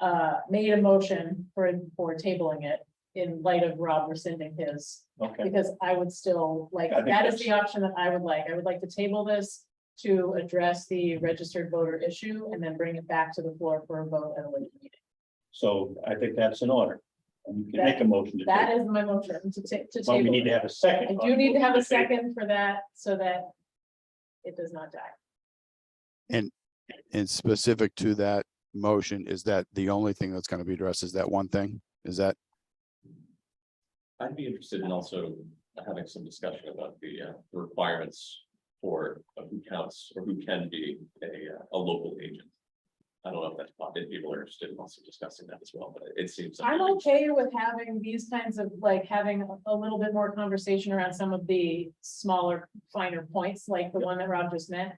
uh, made a motion for, for tabling it in light of Rob rescinding his. Okay, Because I would still like, I think that is that's- the option that I would like. I would like to table this to address the registered voter issue and then bring it back to the floor for a vote at a later meeting. so I think that's in order. And you can make a motion to That table. is my motion to ta- to But we table. need to it. have a second. I do need to have a second for that so that it does not die. And specific to that motion, is that the only thing that's gonna be addressed is that one thing? Is that, I'd be interested in also having some discussion about the uh, the requirements for uh, who counts or who can be a, uh, a local agent. I don't know if that's, pop- if people are interested in also discussing that as well, but it seems. I'm okay with having these kinds of, like, having a- a little bit more conversation around some of the smaller, finer points, like the one that Rob just meant.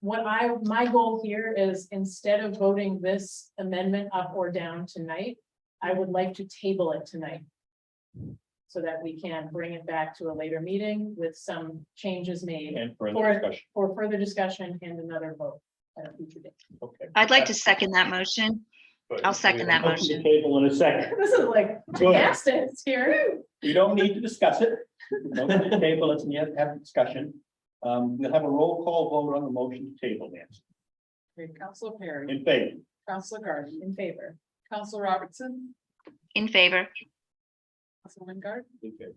What I, my goal here is instead of voting this amendment up or down tonight, I would like to table it tonight. So that we can bring it back to a later meeting with some changes made And further For- discussion, for further discussion and another vote at a future date. okay. I'd like to second that motion. I'll second that Motion to motion. Table in a second. This is like, Good. yes, it's here. You don't need to discuss it. Motion to table, it's, yet have a discussion. Um, we'll have a roll call vote on the motion to table, Nancy. Counselor Perry, In favor, Counselor Garden, In favor. Counselor Robertson, In favor, Counselor Wingard, in favor.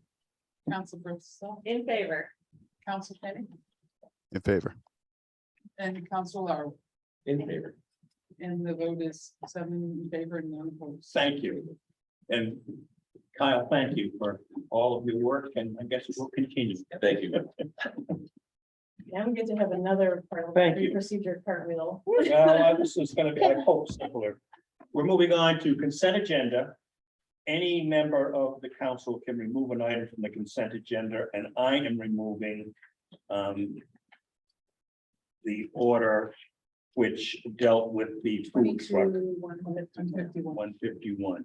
Counselor Bristol, In favor. Counselor Kenny, in favor? and Counselor Lar. in favor. And the vote is seven in favor and none opposed. Thank you. And Kyle, thank you for all of your work and I guess we'll continue. Thank you. Now we get to have another Thank you. parliamentary procedure cartwheel. Well, this is gonna be, I hope, simpler. We're moving on to consent agenda. Any member of the council can remove an item from the consent agenda, and I am removing um the order which dealt with the food truck, one hundred and fifty-one. one fifty-one.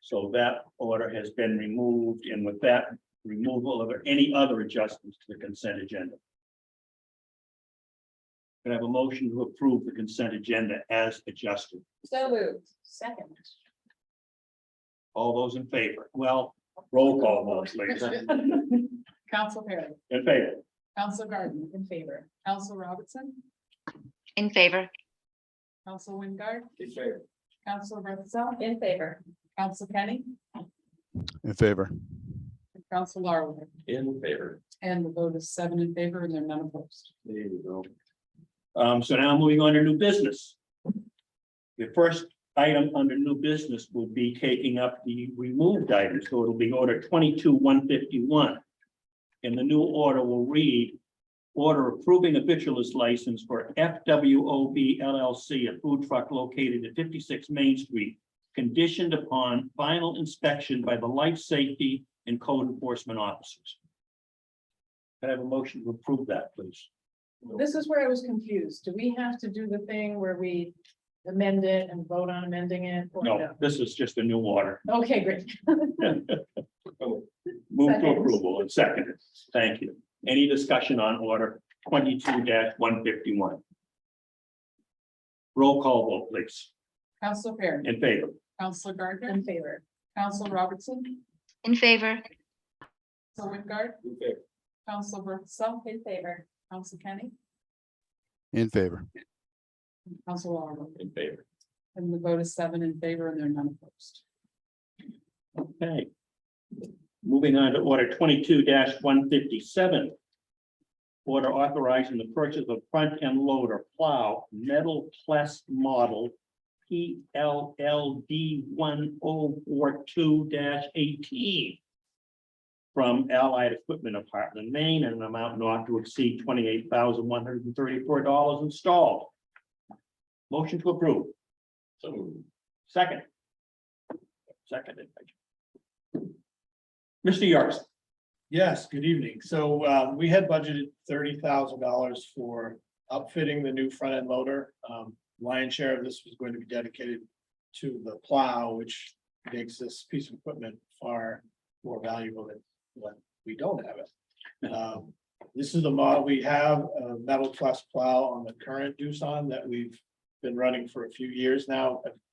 So that order has been removed, and with that removal of any other adjustments to the consent agenda. Can I have a motion to approve the consent agenda as adjusted? So moved. Second. All those in favor? Well, roll call votes, ladies. Counselor Perry, In favor? Counselor Garden, In favor. Counselor Robertson, in favor, Counselor Wingard, In favor. Counselor Bristol, In favor. Counselor Kenny, In favor? and Counselor Lar. In favor. And the vote is seven in favor and they're none opposed. There you go. Um, so now moving on to new business. The first item under new business will be taking up the removed item, so it'll be order twenty-two one fifty-one. And the new order will read, order approving a victualist license for FWOB LLC, a food truck located at fifty-six Main Street, conditioned upon final inspection by the life safety and code enforcement officers. Can I have a motion to approve that, please? This is where I was confused. Do we have to do the thing where we amend it and vote on amending it? or No, this is just a new order. Okay, great. Move to Second. approval and seconded. Thank you. Any discussion on order twenty-two one fifty-one? Roll call vote, please. Counselor Perry, In favor? Counselor Gardner, In favor. Counselor Robertson, in favor, Counselor Wingard, In favor. Counselor Bristol. In favor. Counselor Kenny, In favor? and Counselor Lar. In favor. And the vote is seven in favor and they're none opposed. Okay. Moving on to order twenty-two one fifty-seven. Order authorizing the purchase of front end loader plow metal plus model. P L L D one oh four two eighteen. From Allied Equipment of Heartland, Maine, and an amount not to exceed twenty-eight thousand one hundred and thirty-four dollars installed. Motion to approve, So moved. second. Seconded. Mr. Yarst. Yes, good evening. So uh, we had budgeted thirty thousand dollars for outfitting the new front end loader. Um, Lion's share of this was going to be dedicated to the plow, which makes this piece of equipment far more valuable than when we don't have it. Um, This is the model we have, a metal plus plow on the current Doosan that we've been running for a few years now. I've